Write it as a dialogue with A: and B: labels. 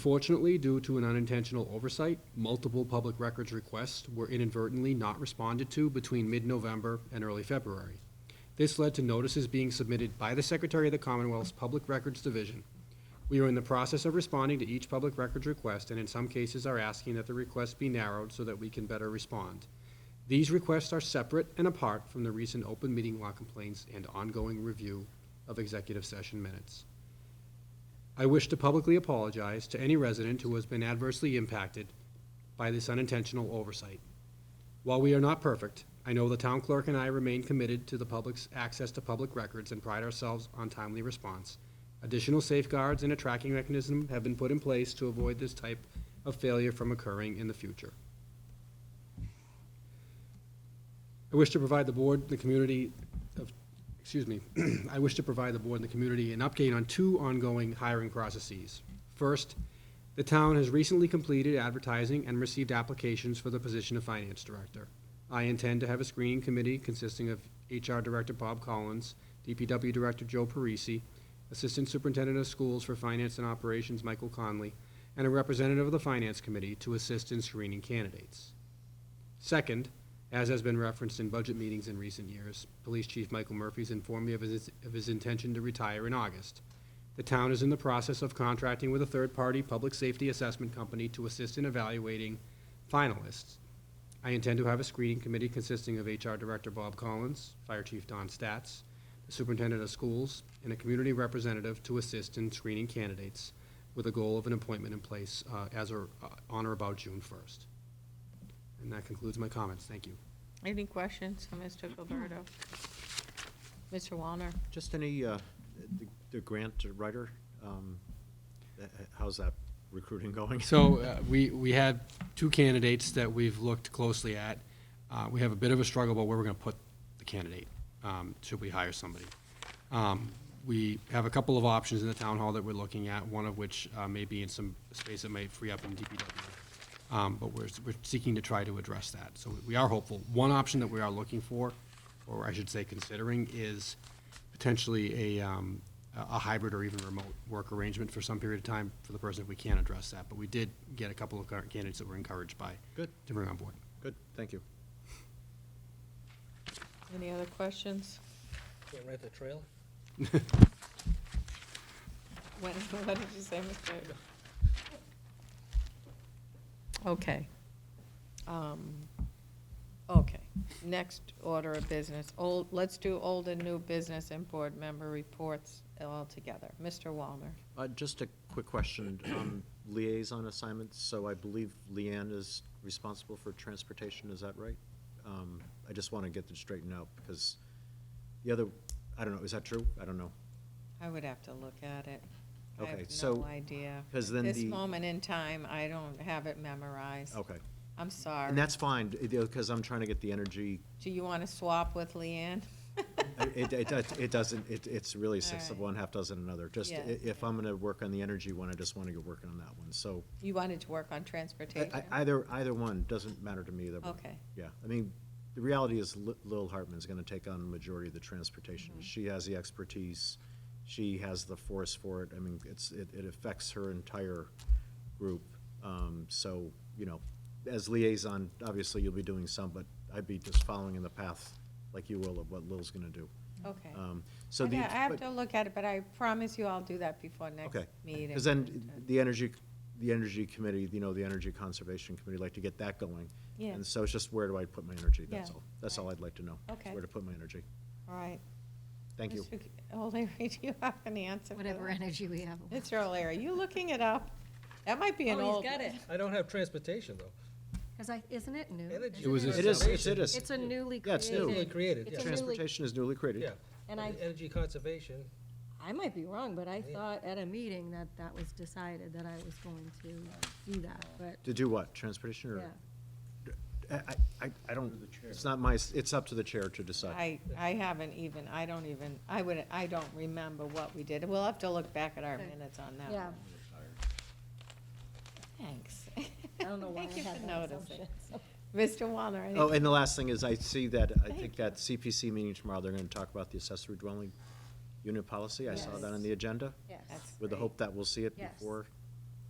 A: Unfortunately, due to an unintentional oversight, multiple public records requests were inadvertently not responded to between mid-November and early February. This led to notices being submitted by the Secretary of the Commonwealth's Public Records Division. We are in the process of responding to each public records request, and in some cases are asking that the requests be narrowed so that we can better respond. These requests are separate and apart from the recent open meeting law complaints and ongoing review of executive session minutes. I wish to publicly apologize to any resident who has been adversely impacted by this unintentional oversight. While we are not perfect, I know the town clerk and I remain committed to the public's access to public records and pride ourselves on timely response. Additional safeguards and a tracking mechanism have been put in place to avoid this type of failure from occurring in the future. I wish to provide the board, the community, of- excuse me, I wish to provide the board and the community an update on two ongoing hiring processes. First, the town has recently completed advertising and received applications for the position of finance director. I intend to have a screening committee consisting of HR Director Bob Collins, DPW Director Joe Parisi, Assistant Superintendent of Schools for Finance and Operations Michael Conley, and a representative of the Finance Committee to assist in screening candidates. Second, as has been referenced in budget meetings in recent years, Police Chief Michael Murphy's informed me of his, of his intention to retire in August. The town is in the process of contracting with a third-party public safety assessment company to assist in evaluating finalists. I intend to have a screening committee consisting of HR Director Bob Collins, Fire Chief Don Statz, the Superintendent of Schools, and a community representative to assist in screening candidates with a goal of an appointment in place uh, as or, uh, on or about June 1st. And that concludes my comments. Thank you.
B: Any questions for Mr. Gilberto? Mr. Walner?
C: Just any, uh, the- the grant writer, um, uh, how's that recruiting going?
A: So uh, we, we had two candidates that we've looked closely at. Uh, We have a bit of a struggle about where we're going to put the candidate, um, should we hire somebody. Um, We have a couple of options in the town hall that we're looking at, one of which uh, may be in some space that may free up in DPW. Um, But we're, we're seeking to try to address that. So we are hopeful. One option that we are looking for, or I should say considering, is potentially a, um, a a hybrid or even remote work arrangement for some period of time for the person if we can't address that. But we did get a couple of current candidates that were encouraged by.
C: Good.
A: To bring on board.
C: Good, thank you.
B: Any other questions?
D: Can't rent the trailer?
B: What, what did you say, Mr.? Okay. Um, Okay, next order of business, old, let's do old and new business and board member reports all together. Mr. Walner?
C: Uh, Just a quick question, um, liaison assignments, so I believe Leanne is responsible for transportation, is that right? Um, I just want to get this straightened out, because the other, I don't know, is that true? I don't know.
B: I would have to look at it.
C: Okay,
B: I have
C: so-
B: no idea.
C: 'cause then
B: This
C: the-
B: moment in time, I don't have it memorized.
C: Okay,
B: I'm sorry.
C: and that's fine, because I'm trying to get the energy,
B: Do you want to swap with Leanne?
C: it, it, it- it doesn't, it, it's really six of
B: All right.
C: one, half dozen another. Just, i-
B: Yeah.
C: if I'm going to work on the energy one, I just want to get working on that one, so
B: You wanted to work on
C: I-
B: transportation?
C: I- Either, either one, doesn't matter to me, either one.
B: Okay.
C: Yeah, I mean, the reality is Li- Lil Hartman's gonna take on the majority of the transportation.
B: Mm-hmm.
C: She has the expertise, she has the force for it, I mean, it's, it, it affects her entire group. Um, so, you know, as liaison, obviously you'll be doing some, but I'd be just following in the path like you will of what Lil's gonna do.
B: Okay.
C: Um, so
B: I
C: the.
B: I have
C: but-
B: to look at it, but I promise you I'll do that before next
C: Okay.
B: meeting.
C: Because then the energy, the energy committee, you know, the energy conservation committee, like to get that going.
B: Yeah.
C: And so it's just where do I put my energy? That's
B: Yeah.
C: all. That's all I'd like to know. is
B: Okay.
C: Where to put my energy.
B: All right.
C: Thank you.
B: Mr. O'Leary, do you have an answer for
E: whatever
B: that?
E: energy we have.
B: Mr. O'Leary, you looking it up? That might be an
E: Oh,
B: old.
E: he's got it.
D: I don't have transportation, though.
E: Because I, isn't it new?
D: Energy
A: It was a-
C: It is,
D: conservation-
C: it's- it is.
E: It's a newly
C: Yeah, it's
E: created.
C: new.
D: Newly created,
E: It's
D: yeah.
E: a newly-
C: Transportation is newly created.
D: Yeah.
E: And I-
D: Energy conservation,
E: I might be wrong, but I
D: Yeah.
E: thought at a meeting that that was decided, that I was going to do that, but,
C: To do what? Transportation
E: yeah.
C: or? I, I- I, I don't, it's not my, s- it's up to the chair to decide.
B: I, I haven't even, I don't even, I would, I don't remember what we did. We'll have to look back at our
E: Okay.
B: minutes on that.
E: Yeah,
B: one. Thanks.
E: I don't know why I
B: Thank you
E: had
B: for
E: that
B: noticing.
E: assumption. so.
B: Mr. Wallner, any-
C: Oh, and the last thing is I see that, I
B: Thank
C: think that CPC meeting tomorrow, they're gonna talk about the accessory dwelling unit policy. I saw that on
E: Yes.
C: the agenda
E: Yes.
B: That's-
C: with the
B: Great.
C: hope that we'll see it
E: Yes.
C: before